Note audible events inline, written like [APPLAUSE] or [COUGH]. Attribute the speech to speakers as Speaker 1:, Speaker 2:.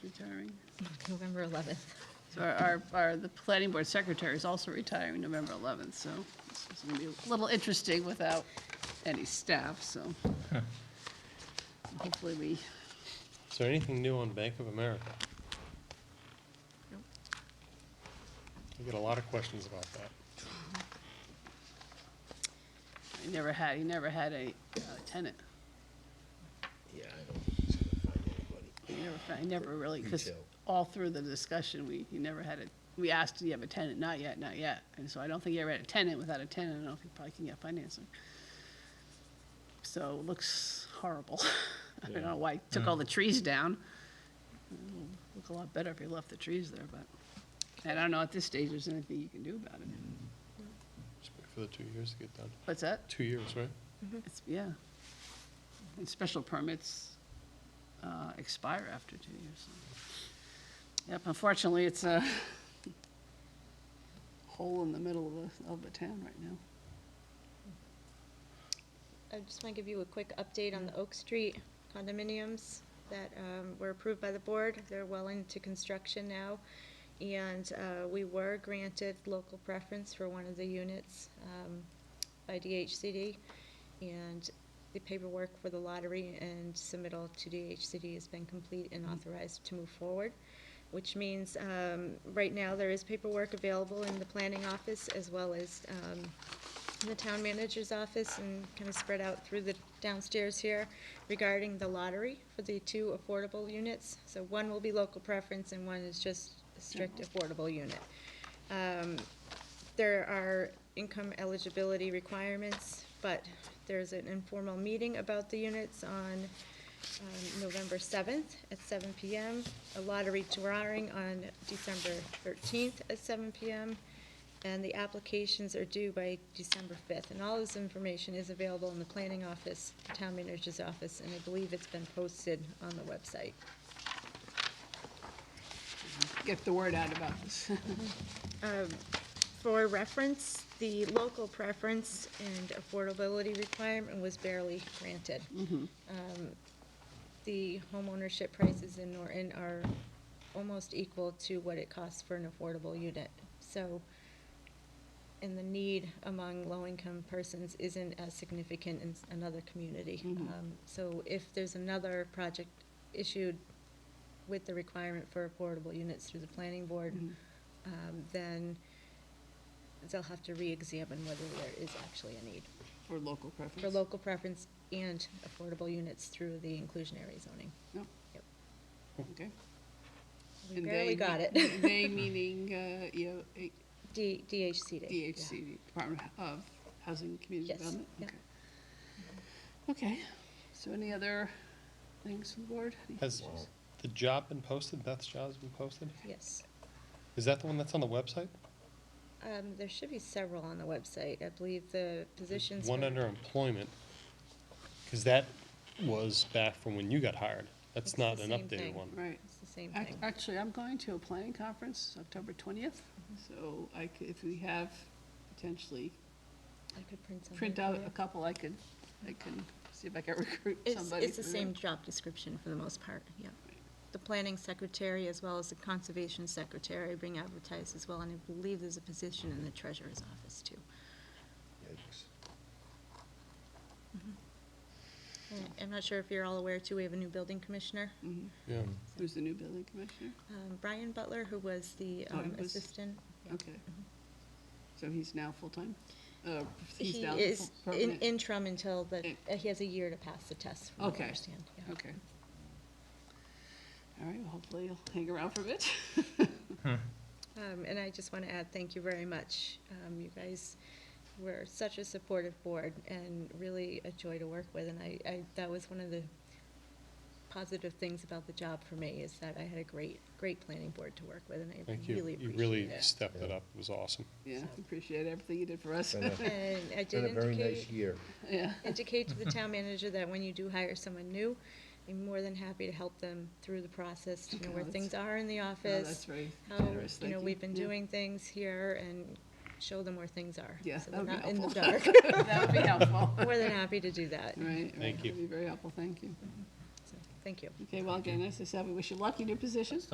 Speaker 1: retiring.
Speaker 2: November 11th.
Speaker 1: So our- our, our, the planning board secretary is also retiring November 11th, so this is going to be a little interesting without any staff, so hopefully we,
Speaker 3: Is there anything new on Bank of America? I get a lot of questions about that.
Speaker 1: we never had, he never had a uh, tenant.
Speaker 4: Yeah, I don't find anybody.
Speaker 1: He never, fa- he never really, because
Speaker 4: Retail.
Speaker 1: all through the discussion, we, he never had a, we asked, do you have a tenant? Not yet, not yet. And so I don't think he ever had a tenant. Without a tenant, I don't know if he probably can get financing. So it looks horrible. [LAUGHS] I don't know why he took all the trees down. It'll Look a lot better if he left the trees there, but I don't know at this stage there's anything you can do about it.
Speaker 3: Just wait for the two years to get done.
Speaker 1: What's that?
Speaker 3: Two years, right?
Speaker 1: It's, yeah. And special permits uh, expire after two years. so. Yep, unfortunately, it's a [LAUGHS] hole in the middle of the, of the town right now.
Speaker 5: I just want to give you a quick update on the Oak Street condominiums that um, were approved by the board. They're well into construction now. And uh, we were granted local preference for one of the units um, by DHCD. And the paperwork for the lottery and submittal to DHCD has been complete and authorized to move forward, which means um, right now there is paperwork available in the planning office as well as um, in the town manager's office and kind of spread out through the downstairs here regarding the lottery for the two affordable units. So one will be local preference and one is just a strict affordable unit. Um, there are income eligibility requirements, but there's an informal meeting about the units on um, November 7th at 7 PM, a lottery drawing on December 13th at 7 PM, and the applications are due by December 5th. And all this information is available in the planning office, town manager's office, and I believe it's been posted on the website.
Speaker 1: Get the word out about this.
Speaker 5: um, For reference, the local preference and affordability requirement was barely granted.
Speaker 1: [LAUGHS]
Speaker 5: Um, The homeownership prices in Norton are almost equal to what it costs for an affordable unit. So, and the need among low-income persons isn't as significant in s- another community. Um, So if there's another project issued with the requirement for affordable units through the planning board,
Speaker 1: Mm-hmm.
Speaker 5: um, then they'll have to re-examine whether there is actually a need
Speaker 1: For local preference.
Speaker 5: for local preference and affordable units through the inclusionary zoning.
Speaker 1: No,
Speaker 5: Yep.
Speaker 1: okay. [LAUGHS]
Speaker 5: We
Speaker 1: And
Speaker 5: barely
Speaker 1: they
Speaker 5: got
Speaker 1: me-
Speaker 5: it.
Speaker 1: They meaning, uh, you know,
Speaker 5: [LAUGHS] D, DHCD. yeah.
Speaker 1: DHC, Department of Housing and Community
Speaker 5: Yes,
Speaker 1: Development?
Speaker 5: yeah.
Speaker 1: Okay. Okay, so any other things from the board? Any
Speaker 3: Has
Speaker 1: issues?
Speaker 3: the job been posted? Beth's job's been posted?
Speaker 5: Yes.
Speaker 3: Is that the one that's on the website?
Speaker 5: Um, there should be several on the website. I believe the positions.
Speaker 3: One
Speaker 5: for-
Speaker 3: under employment, because that was back from when you got hired.
Speaker 5: It's
Speaker 3: That's
Speaker 5: the
Speaker 3: not an
Speaker 5: same
Speaker 3: updated
Speaker 5: thing.
Speaker 3: one.
Speaker 1: Right.
Speaker 5: It's the same
Speaker 1: Ac-
Speaker 5: thing.
Speaker 1: Actually, I'm going to a planning conference October 20th,
Speaker 5: Mm-hmm.
Speaker 1: so I c if we have potentially,
Speaker 5: I could print something.
Speaker 1: print out
Speaker 5: for
Speaker 1: a
Speaker 5: you.
Speaker 1: couple, I could, I can see if I can recruit
Speaker 5: It's,
Speaker 1: somebody.
Speaker 5: it's the
Speaker 1: for
Speaker 5: same
Speaker 1: that.
Speaker 5: job description for the most part, yeah. The planning secretary as well as the conservation secretary being advertised as well, and I believe there's a position in the treasurer's office too.
Speaker 4: Yikes.
Speaker 5: And I'm not sure if you're all aware too, we have a new building commissioner,
Speaker 1: Mhm.
Speaker 3: Yeah.
Speaker 1: Who's the new building commissioner?
Speaker 5: um, Brian Butler, who was the
Speaker 1: Oh, he
Speaker 5: um,
Speaker 1: was-
Speaker 5: assistant. Yeah. Mm-hmm.
Speaker 1: Okay. So he's now full-time? Uh, He's
Speaker 5: He
Speaker 1: now
Speaker 5: is
Speaker 1: full-
Speaker 5: in
Speaker 1: permanent?
Speaker 5: interim until the,
Speaker 1: In-
Speaker 5: uh, he has a year to pass the test, from what
Speaker 1: Okay.
Speaker 5: I understand. yeah.
Speaker 1: Okay. All right, well, hopefully he'll hang around for a bit. [LAUGHS]
Speaker 5: Um, and I just want to add, thank you very much. Um, you guys were such a supportive board and really a joy to work with. And I, I, that was one of the positive things about the job for me is that I had a great, great planning board to work with and I
Speaker 3: Thank you.
Speaker 5: really
Speaker 3: You
Speaker 5: appreciate
Speaker 3: really [LAUGHS]
Speaker 5: it.
Speaker 3: stepped it
Speaker 4: Yeah.
Speaker 3: up. It was awesome.
Speaker 1: Yeah, appreciate everything you did for us.
Speaker 4: Been a-
Speaker 5: And I
Speaker 4: Been
Speaker 5: did
Speaker 4: a very nice
Speaker 5: [LAUGHS] indicate,
Speaker 4: year.
Speaker 1: [LAUGHS] Yeah.
Speaker 5: indicate to the
Speaker 3: [LAUGHS]
Speaker 5: town manager that when you do hire someone new, I'm more than happy to help them through the process, you know,
Speaker 1: Okay,
Speaker 5: where
Speaker 1: that's-
Speaker 5: things are in the
Speaker 1: Oh,
Speaker 5: office.
Speaker 1: That's very
Speaker 5: how,
Speaker 1: generous,
Speaker 5: you
Speaker 1: thank you.
Speaker 5: know, we've been
Speaker 1: Yeah.
Speaker 5: doing things here and show them where things are.
Speaker 1: Yeah,
Speaker 5: So
Speaker 1: that
Speaker 5: they're
Speaker 1: would be
Speaker 5: not in the dark.
Speaker 1: helpful. [LAUGHS]
Speaker 5: [LAUGHS]
Speaker 1: That would be helpful.
Speaker 5: More than happy to do that.
Speaker 1: Right, right.
Speaker 3: Thank you.
Speaker 1: That'd be very helpful, thank you.
Speaker 5: So, Thank you.
Speaker 1: Okay, well, again, as I said, we wish you luck in your position.